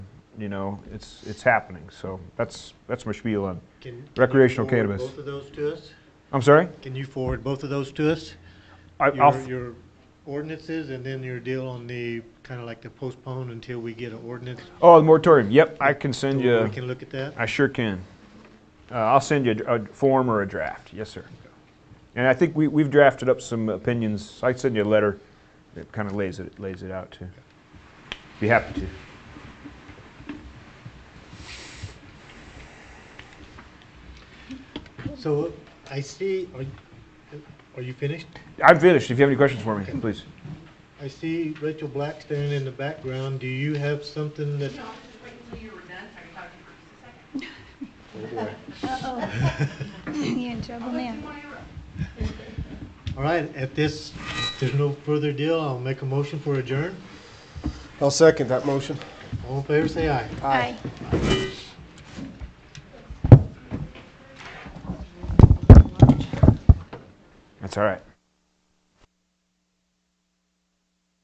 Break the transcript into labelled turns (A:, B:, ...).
A: you know, it's, it's happening. So that's, that's my spiel on,
B: Can- can you
A: Recreational
B: forward
A: cannabis.
B: Both of those to us?
A: I'm sorry?
B: Can you forward both of those to us?
A: I- I'll,
B: Your, your ordinances and then your deal on the, kind of like the postpone until we get an ordinance?
A: oh, the moratorium, yep, I can
B: so
A: send
B: We
A: you,
B: can look at that?
A: I sure can. Uh, I'll send you a a form or a draft, yes, sir. And I think we, we've drafted up some opinions, I send you a letter that kind of lays it, lays it out too. Be happy to.
B: So I see, are, you- are you finished?
A: I'm finished, if you have any questions for me, please.
B: I see Rachel Black standing in the background. Do you have something that,
C: No, I was just waiting until you were done so I could talk to you for just a second.
D: You in trouble now?
C: Come on over.
B: all right, at this, there's no further deal, I'll make a motion for adjourn.
E: I'll second that motion.
B: All in favor, say aye.
D: Aye.
A: That's all right.